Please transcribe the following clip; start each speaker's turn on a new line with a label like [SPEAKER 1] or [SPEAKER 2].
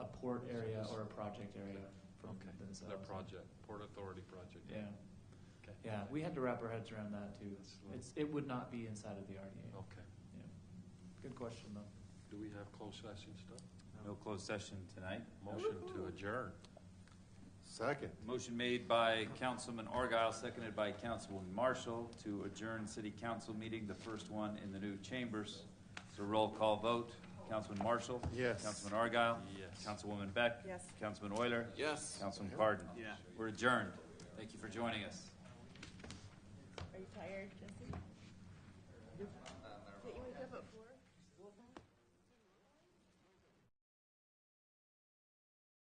[SPEAKER 1] port area or a project area for
[SPEAKER 2] Okay.
[SPEAKER 1] themselves.
[SPEAKER 2] Their project, Port Authority project.
[SPEAKER 1] Yeah,
[SPEAKER 2] Okay.
[SPEAKER 1] yeah, we had to wrap our heads around that too.
[SPEAKER 2] That's what-
[SPEAKER 1] It's, it would not be inside of the RDA.
[SPEAKER 2] Okay.
[SPEAKER 1] Yeah. Good question though.
[SPEAKER 2] Do we have closed session stuff?
[SPEAKER 3] No closed session tonight.
[SPEAKER 2] Motion to adjourn.
[SPEAKER 4] Second.
[SPEAKER 3] Motion made by Councilman Argyle, seconded by Councilman Marshall to adjourn city council meeting, the first one in the new chambers. It's a roll call vote. Councilman Marshall?
[SPEAKER 4] Yes.
[SPEAKER 3] Councilman Argyle?
[SPEAKER 2] Yes.
[SPEAKER 3] Councilwoman Beck?
[SPEAKER 5] Yes.
[SPEAKER 3] Councilman Euler?
[SPEAKER 2] Yes.
[SPEAKER 3] Councilman Cardon? Yeah. We're adjourned. Thank you for joining us.
[SPEAKER 5] Are you tired, Jesse? Did you wake up at four?